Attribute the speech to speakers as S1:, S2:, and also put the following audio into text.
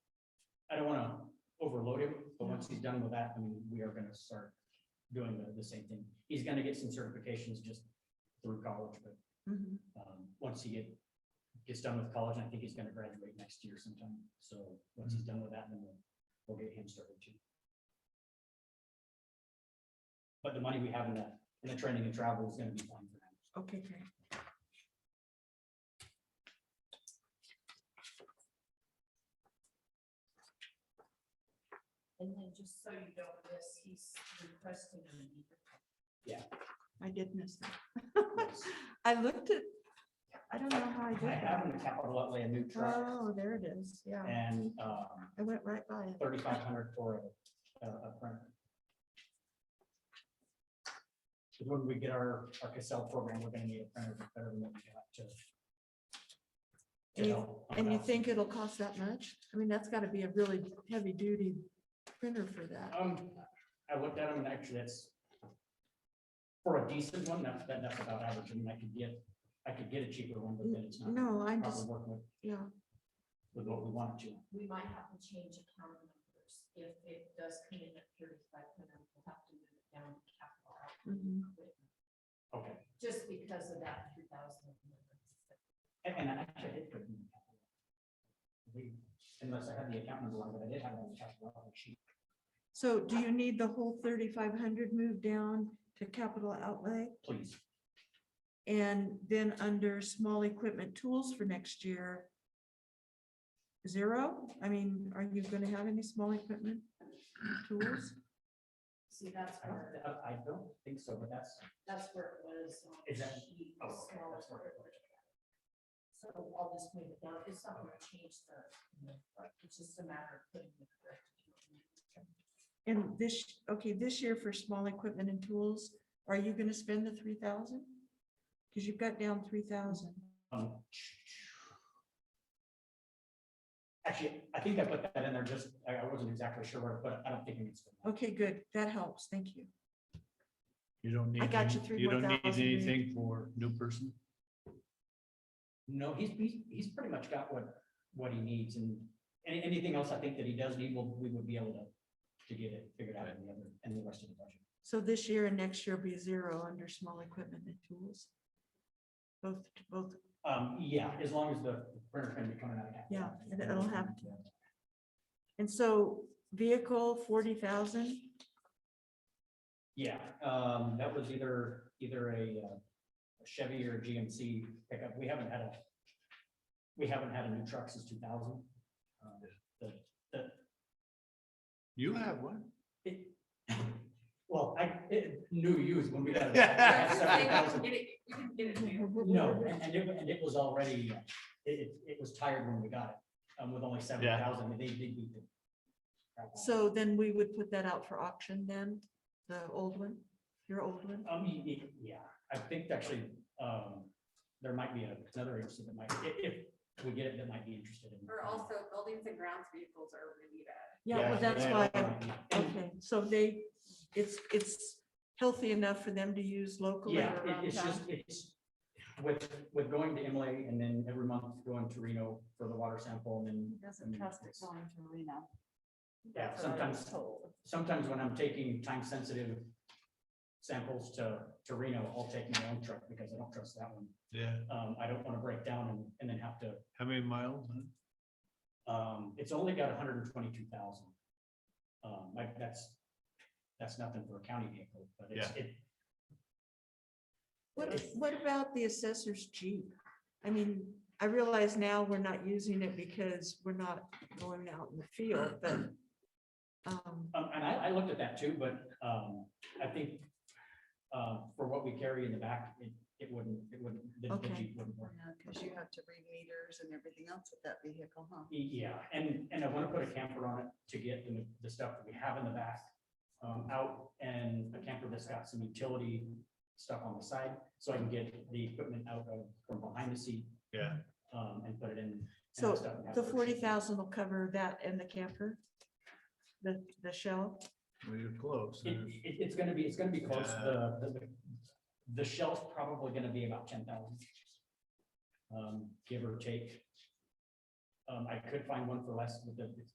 S1: overload him, but once he's done with that, I mean, we are gonna start doing the, the same thing. He's gonna get some certifications just through college, but,
S2: Mhm.
S1: um, once he get, gets done with college, I think he's gonna graduate next year sometime, so once he's done with that, then we'll, we'll get him started too. But the money we have in that, in the training and travel is gonna be fine for him.
S2: Okay, great.
S3: And then just so you don't miss, he's requesting an
S2: I did miss that.
S1: Yes.
S2: I looked at, I don't know how I did
S1: I have
S2: that.
S1: in the capital outlay a new truck
S2: Oh, there it is. Yeah,
S1: and, um,
S2: I went right by it.
S1: thirty-five hundred for a, a a printer. Because When we get our, our Cassell program, we're gonna need a printer better than what we got to. to
S2: And you-
S1: help on
S2: And you
S1: that.
S2: think it'll cost that much? I mean, that's gotta be a really heavy duty printer for that.
S1: Um, I looked at them and actually that's. For a decent one, that's, that- that's about average. I mean, I could get, I could get a cheaper one, but then it's not.
S2: No, I
S1: Probably
S2: just,
S1: working with,
S2: yeah,
S1: with what we want it to.
S3: We might have to change account numbers. If it does come in at thirty-five hundred, we'll have to move it down to capital
S2: mhm.
S3: equipment,
S1: Okay.
S3: just because of that three thousand.
S1: And, and I actually did put it in the capital. We- Unless I had the account number wrong, but I did have it on the capital outlay sheet.
S2: So do you need the whole thirty-five hundred moved down to capital outlay?
S1: Please.
S2: And then under small equipment tools for next year? Zero? I mean, are you gonna have any small equipment tools?
S3: See, that's
S1: I don't,
S3: where,
S1: I I don't think so, but that's,
S3: that's where it was. on
S1: Is that-
S3: sheet,
S1: oh,
S3: the
S1: okay,
S3: smaller
S1: that's where it
S3: part. So I'll just move it down. It's not gonna change the, it's just a matter of putting the correct. account number.
S2: And this, okay, this year for small equipment and tools, are you gonna spend the three thousand? Cause you've got down three thousand.
S1: um. Actually, I think I put that in there just, I, I wasn't exactly sure where, but I don't think it needs. to be.
S2: Okay, good. That helps. Thank you.
S4: You don't need,
S2: got you
S4: any-
S2: three
S4: you
S2: more
S4: don't need
S2: thousand, dude.
S4: anything for new person?
S1: No, he's, he's, he's pretty much got what, what he needs and any, anything else I think that he does need, we'll, we would be able to, to get it figured out in the other, in the rest of the budget.
S2: So this year and next year will be zero under small equipment and tools? Both, both,
S1: Um, yeah, as long as the printer's gonna be coming out. of that.
S2: Yeah, and it'll have and so vehicle forty thousand?
S1: Yeah, um, that was either, either a uh, a Chevy or a GMC pickup. We haven't had a, we haven't had a new truck since two thousand. Um,
S4: You have one?
S1: Well, I, it, new used when we had.
S3: Yeah,
S1: seventy thousand.
S3: We can get it new.
S1: No, and, and it, and it was already, uh, it, it, it was tired when we got it, um, with only seventy thousand, they, they beat it.
S2: So then we would put that out for auction then, the old one, your old one?
S1: Um, y- y- yeah, I think actually, um, there might be another agency that might, if, if we get it, that might be interested in.
S5: Or also buildings and grounds vehicles are really bad.
S2: Yeah, well, that's
S1: Yeah. um,
S2: why,
S1: And-
S2: okay, so they, it's, it's healthy enough for them to use locally
S1: Yeah,
S2: or
S1: it-
S2: around
S1: it's just,
S2: town?
S1: it's, with, with going to Imlay and then every month going to Reno for the water sample and then. and it's-
S5: going to Reno.
S1: Yeah, sometimes, sometimes when I'm taking time sensitive samples to, to Reno, I'll take my own truck because I don't trust that one.
S4: Yeah.
S1: Um, I don't want to break down and, and then have to,
S4: How many miles? huh?
S1: um, it's only got hundred and twenty-two thousand. Um, like, that's, that's nothing for a county vehicle, but it's, it,
S2: What, what about the assessor's Jeep? I mean, I realize now we're not using it because we're not going out in the field, but um,
S1: Um, and I, I looked at that too, but, um, I think, um, for what we carry in the back, it, it wouldn't, it wouldn't, the- the
S2: Okay.
S1: Jeep wouldn't work.
S5: Because you have to read meters and everything else with that vehicle, huh?
S1: E, Yeah, and, and I wanna put a camper on it to get the, the stuff that we have in the back, um, out and a camper that's got some utility stuff on the side, so I can get the equipment out of, from behind the seat,
S4: Yeah,
S1: um, and put it in. and
S2: so
S1: stuff and have
S2: the
S1: it-
S2: forty thousand will cover that and the camper? The, the shell?
S4: well, you're close.
S1: It,
S4: There's-
S1: it, it's gonna be, it's gonna be close, the, the, the- the shell's probably gonna be about ten thousand. Um, give or take. Um, I could find one for less, but the,